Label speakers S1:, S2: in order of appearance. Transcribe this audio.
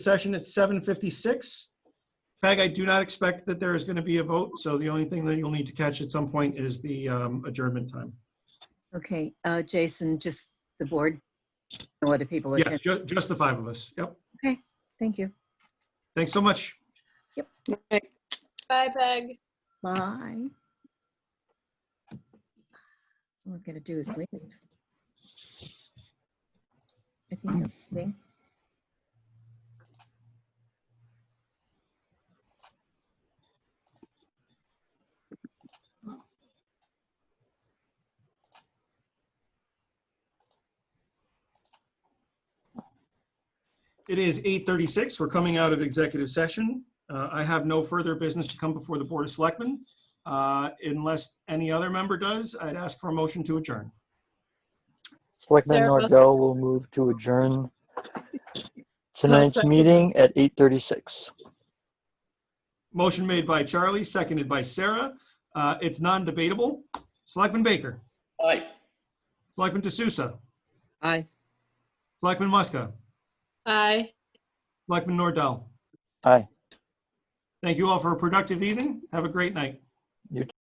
S1: session at 7:56. Peg, I do not expect that there is going to be a vote, so the only thing that you'll need to catch at some point is the um, adjournment time.
S2: Okay, uh, Jason, just the board, no other people
S1: Yeah,
S2: attend.
S1: ju- just the five of us. Yep.
S2: Thank you.
S1: Thanks so much.
S3: Bye, Peg.
S2: Bye. All we're gonna do is leave. I think I'm leaving.
S1: It is 8:36. We're coming out of executive session. Uh, I have no further business to come before the Board of Selectmen. Uh, Unless any other member does, I'd ask for a motion to adjourn.
S4: Selectman
S3: Sarah-
S4: Nordell will move to adjourn tonight's
S3: second.
S4: meeting at 8:36.
S1: Motion made by Charlie, seconded by Sarah. Uh, It's non-debatable. Selectman Baker.
S5: Aye.
S1: Selectman D'Souza.
S5: Aye.
S1: Selectman Muska.
S3: Bye.
S1: Selectman Nordell.
S4: Aye.
S1: Thank you all for a productive evening. Have a great night.